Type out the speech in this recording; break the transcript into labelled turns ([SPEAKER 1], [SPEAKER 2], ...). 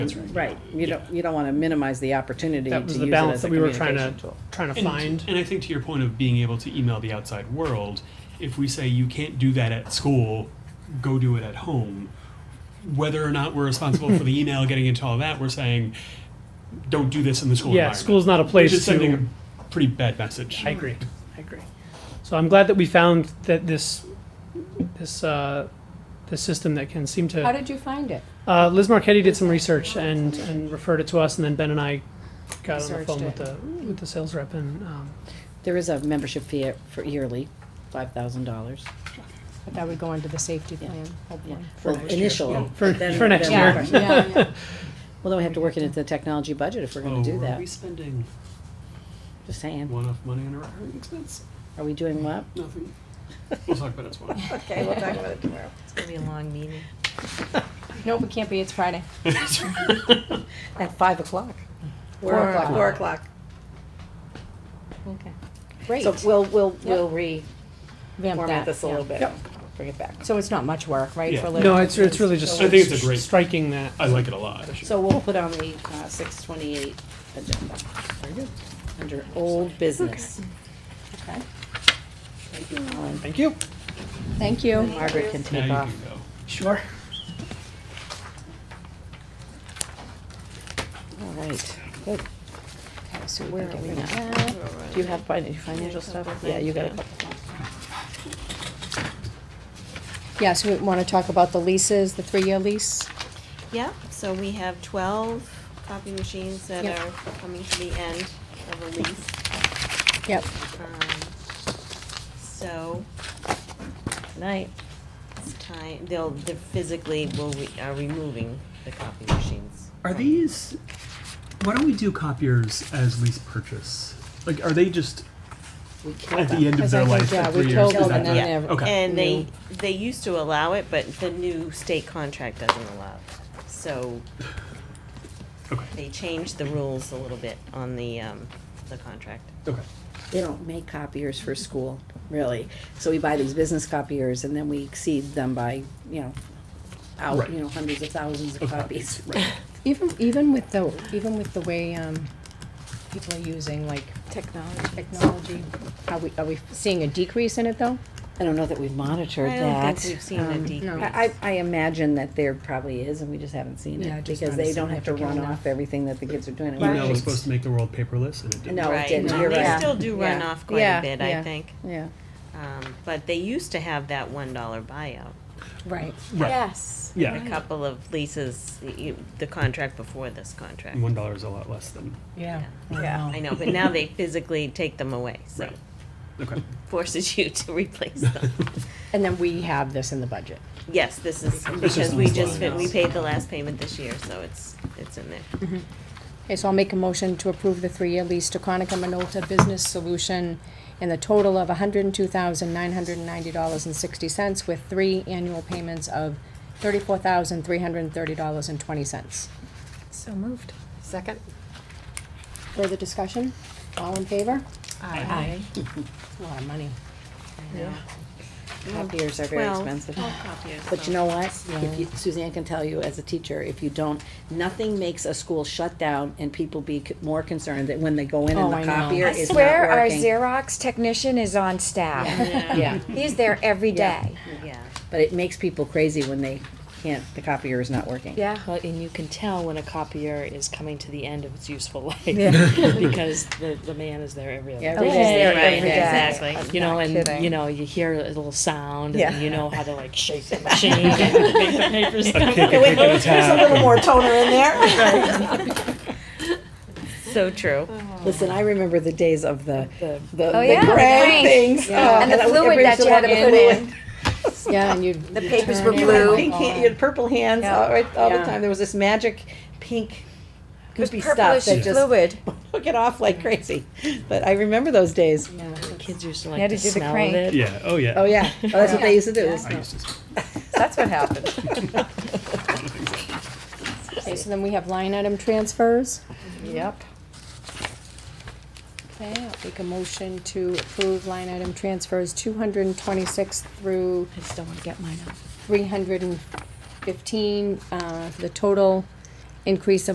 [SPEAKER 1] That's right.
[SPEAKER 2] Right, you don't, you don't want to minimize the opportunity to
[SPEAKER 3] That was
[SPEAKER 2] use
[SPEAKER 3] the
[SPEAKER 2] it
[SPEAKER 3] balance
[SPEAKER 2] as a
[SPEAKER 3] that we were trying
[SPEAKER 2] communication
[SPEAKER 3] to,
[SPEAKER 2] tool.
[SPEAKER 3] trying to
[SPEAKER 1] And,
[SPEAKER 3] find.
[SPEAKER 1] and I think to your point of being able to email the outside world, if we say you can't do that at school, go do it at home, whether or not we're responsible for the email getting into all that, we're saying don't do this in the school
[SPEAKER 3] Yeah,
[SPEAKER 1] environment.
[SPEAKER 3] school's not a
[SPEAKER 1] which
[SPEAKER 3] place
[SPEAKER 1] is sending
[SPEAKER 3] to,
[SPEAKER 1] a pretty bad message.
[SPEAKER 3] I agree, I agree. So I'm glad that we found that this, this, uh, this system that can seem
[SPEAKER 4] How
[SPEAKER 3] to,
[SPEAKER 4] did you find it?
[SPEAKER 3] uh, Liz Marquetti did some research and, and referred it to us, and then Ben and I got on the
[SPEAKER 4] Researched
[SPEAKER 3] phone
[SPEAKER 4] it.
[SPEAKER 3] with the, with the sales rep and, um,
[SPEAKER 2] There is a membership fee for yearly, five thousand dollars.
[SPEAKER 4] But that would go into the safety plan, hopefully.
[SPEAKER 2] Well, initially.
[SPEAKER 3] for,
[SPEAKER 2] then-
[SPEAKER 3] for next
[SPEAKER 2] then-
[SPEAKER 3] year.
[SPEAKER 4] yeah, yeah.
[SPEAKER 2] Well, then we have to work it into the technology budget if we're
[SPEAKER 1] Oh,
[SPEAKER 2] gonna do
[SPEAKER 1] Are
[SPEAKER 2] that,
[SPEAKER 1] we spending
[SPEAKER 2] just saying,
[SPEAKER 1] one-off money on a recurring expense?
[SPEAKER 2] are we doing what?
[SPEAKER 1] Nothing. We'll talk about it tomorrow.
[SPEAKER 2] Okay, we'll talk about it tomorrow.
[SPEAKER 5] It's gonna be a long meeting.
[SPEAKER 4] No, we can't be, it's Friday.
[SPEAKER 2] At five o'clock.
[SPEAKER 4] Four o'clock. Four
[SPEAKER 2] o'clock.
[SPEAKER 4] Okay.
[SPEAKER 2] So
[SPEAKER 4] Great.
[SPEAKER 2] we'll, we'll,
[SPEAKER 4] Yep.
[SPEAKER 2] we'll re,
[SPEAKER 4] Vamp
[SPEAKER 2] format
[SPEAKER 4] that,
[SPEAKER 2] this a
[SPEAKER 4] yeah.
[SPEAKER 2] little bit, bring it back.
[SPEAKER 4] So it's not much work, right?
[SPEAKER 1] Yeah.
[SPEAKER 4] for Liz?
[SPEAKER 3] No, it's, it's really just
[SPEAKER 1] I think it's a great-
[SPEAKER 3] striking that.
[SPEAKER 1] I like it a lot.
[SPEAKER 2] So we'll put on the, uh, six twenty-eight agenda. Very good. Under old business.
[SPEAKER 4] Okay.
[SPEAKER 2] Thank you, Alan.
[SPEAKER 3] Thank you.
[SPEAKER 4] Thank you.
[SPEAKER 2] Margaret can
[SPEAKER 1] Now
[SPEAKER 2] take
[SPEAKER 1] you
[SPEAKER 2] off.
[SPEAKER 1] can go.
[SPEAKER 3] Sure.
[SPEAKER 2] All right, good.
[SPEAKER 4] Okay, so
[SPEAKER 2] Where
[SPEAKER 4] we
[SPEAKER 2] are we
[SPEAKER 4] can get rid of
[SPEAKER 2] now?
[SPEAKER 4] that.
[SPEAKER 2] Do you have fin- financial stuff? Yeah, you got a couple.
[SPEAKER 4] Yeah, so we wanna talk about the leases, the three-year lease?
[SPEAKER 5] Yep, so we have twelve copy machines that
[SPEAKER 4] Yep.
[SPEAKER 5] are coming to the end of a lease.
[SPEAKER 4] Yep.
[SPEAKER 5] Um, So, tonight, it's time, they'll, they physically will, re- are removing the copy machines.
[SPEAKER 1] Are
[SPEAKER 5] from-
[SPEAKER 1] these? Why don't we do copiers as lease purchase? Like, are they just
[SPEAKER 2] We killed
[SPEAKER 1] at
[SPEAKER 2] them.
[SPEAKER 1] the end of
[SPEAKER 4] Because
[SPEAKER 1] their
[SPEAKER 4] I think,
[SPEAKER 1] life?
[SPEAKER 4] yeah,
[SPEAKER 1] at
[SPEAKER 4] we
[SPEAKER 1] three years?
[SPEAKER 4] killed
[SPEAKER 1] Is
[SPEAKER 4] them
[SPEAKER 1] that
[SPEAKER 4] and
[SPEAKER 1] the-
[SPEAKER 4] then they're-
[SPEAKER 1] Okay.
[SPEAKER 5] And they, they used to allow it, but the new state contract doesn't allow it. So
[SPEAKER 1] Okay.
[SPEAKER 5] they changed the rules a little bit on the, um, the contract.
[SPEAKER 1] Okay.
[SPEAKER 2] They don't make copiers for school, really. So we buy these business copiers and then we exceed them by, you know, out,
[SPEAKER 1] Right.
[SPEAKER 2] you know, hundreds of thousands of
[SPEAKER 1] Of
[SPEAKER 2] copies.
[SPEAKER 1] Right.
[SPEAKER 4] Even, even with the, even with the way, um, people are using like. Technology. Technology, are we, are we seeing a decrease in it though?
[SPEAKER 2] I don't know that we've monitored
[SPEAKER 5] I
[SPEAKER 2] that.
[SPEAKER 5] don't think we've seen a
[SPEAKER 2] Um,
[SPEAKER 5] decrease.
[SPEAKER 2] I, I, I imagine that there probably is and we just haven't seen
[SPEAKER 4] Yeah,
[SPEAKER 2] it
[SPEAKER 4] I just
[SPEAKER 2] because they
[SPEAKER 4] noticed
[SPEAKER 2] don't
[SPEAKER 4] it
[SPEAKER 2] have to
[SPEAKER 4] after
[SPEAKER 2] run
[SPEAKER 4] Canada.
[SPEAKER 2] off everything that the kids are doing. in
[SPEAKER 1] Email was
[SPEAKER 2] worksheets.
[SPEAKER 1] supposed to make the world paperless, and it didn't.
[SPEAKER 2] No, it
[SPEAKER 5] Right.
[SPEAKER 2] didn't.
[SPEAKER 5] No,
[SPEAKER 2] You're
[SPEAKER 5] They
[SPEAKER 2] right.
[SPEAKER 5] still do run
[SPEAKER 2] Yeah.
[SPEAKER 5] off quite
[SPEAKER 2] Yeah,
[SPEAKER 5] a bit, I
[SPEAKER 2] yeah.
[SPEAKER 5] think.
[SPEAKER 2] Yeah.
[SPEAKER 5] Um, but they used to have that one dollar buyout.
[SPEAKER 4] Right.
[SPEAKER 1] Right.
[SPEAKER 2] Yes.
[SPEAKER 1] Yeah.
[SPEAKER 5] A couple of leases, y- you, the contract before this contract.
[SPEAKER 1] One dollar is a lot less than.
[SPEAKER 4] Yeah.
[SPEAKER 2] Yeah.
[SPEAKER 5] I know, but now they physically take them away, so
[SPEAKER 1] Right. Okay.
[SPEAKER 5] forces you to replace them.
[SPEAKER 4] And then we have this in the budget.
[SPEAKER 5] Yes, this is,
[SPEAKER 1] just
[SPEAKER 5] because
[SPEAKER 1] on
[SPEAKER 5] we
[SPEAKER 1] the
[SPEAKER 5] just,
[SPEAKER 1] line.
[SPEAKER 5] fin- we paid the last payment this year, so it's, it's in there.
[SPEAKER 4] Okay, so I'll make a motion to approve the three-year lease to Conica Minolta Business Solution in the total of hundred and two thousand nine hundred and ninety dollars and sixty cents with three annual payments of thirty-four thousand three hundred and thirty dollars and twenty cents.
[SPEAKER 5] So moved.
[SPEAKER 4] Second. Further discussion? All in favor? Aye. It's a lot of money.
[SPEAKER 2] Copiers are very
[SPEAKER 5] Well,
[SPEAKER 2] expensive.
[SPEAKER 5] copiers,
[SPEAKER 2] But
[SPEAKER 5] so-
[SPEAKER 2] you know what? If you, Suzanne can tell you as a teacher, if you don't, nothing makes a school shut down and people be c- more concerned that when they go in
[SPEAKER 4] Oh,
[SPEAKER 2] and
[SPEAKER 4] I
[SPEAKER 2] the
[SPEAKER 4] know.
[SPEAKER 2] copier
[SPEAKER 6] I
[SPEAKER 2] is not
[SPEAKER 6] swear our
[SPEAKER 2] working.
[SPEAKER 6] Xerox technician is on staff.
[SPEAKER 2] Yeah,
[SPEAKER 6] He's there every
[SPEAKER 2] Yeah.
[SPEAKER 6] day.
[SPEAKER 5] Yeah.
[SPEAKER 2] but it makes people crazy when they can't, the copier is not working.
[SPEAKER 6] Yeah.
[SPEAKER 7] Well, and you can tell when a copier is coming to the end of its useful life because the, the man is there every other
[SPEAKER 2] Yeah,
[SPEAKER 7] day.
[SPEAKER 2] Every day,
[SPEAKER 5] Right,
[SPEAKER 2] every day.
[SPEAKER 5] exactly.
[SPEAKER 7] You know, and
[SPEAKER 6] kidding.
[SPEAKER 7] you know, you hear a little sound,
[SPEAKER 2] Yeah.
[SPEAKER 7] and you know how to like shake the machine, and make the papers.
[SPEAKER 1] A kick, a kick, and a tap.
[SPEAKER 2] more toner in there.
[SPEAKER 5] So true.
[SPEAKER 2] Listen, I remember the days of the, the, the
[SPEAKER 6] Oh, yeah, the
[SPEAKER 2] gray
[SPEAKER 6] paint.
[SPEAKER 2] things. Oh,
[SPEAKER 6] Oh, And the fluid that you had to put in.
[SPEAKER 4] Yeah, and you'd. The
[SPEAKER 2] Papers were blue.
[SPEAKER 6] Oh.
[SPEAKER 2] Pink, hand- you had purple hands all, right, all the time. There was this magic pink goopy stuff
[SPEAKER 6] Purplish
[SPEAKER 2] that just
[SPEAKER 6] fluid.
[SPEAKER 2] took it off like crazy. But I remember those days.
[SPEAKER 7] The kids used to like
[SPEAKER 6] had
[SPEAKER 7] the
[SPEAKER 6] to do the
[SPEAKER 7] smell
[SPEAKER 6] crank.
[SPEAKER 7] of it.
[SPEAKER 1] Yeah. Oh yeah.
[SPEAKER 2] Oh yeah, oh, that's what they used to do.
[SPEAKER 1] I used to. say-
[SPEAKER 6] That's what happened.
[SPEAKER 4] Okay, so then we have line item transfers.
[SPEAKER 6] Yep.
[SPEAKER 4] Okay, I'll make a motion to approve line item transfers two hundred and twenty-six through
[SPEAKER 7] I just don't want to get mine out.
[SPEAKER 4] three hundred and fifteen, uh, for the total increase of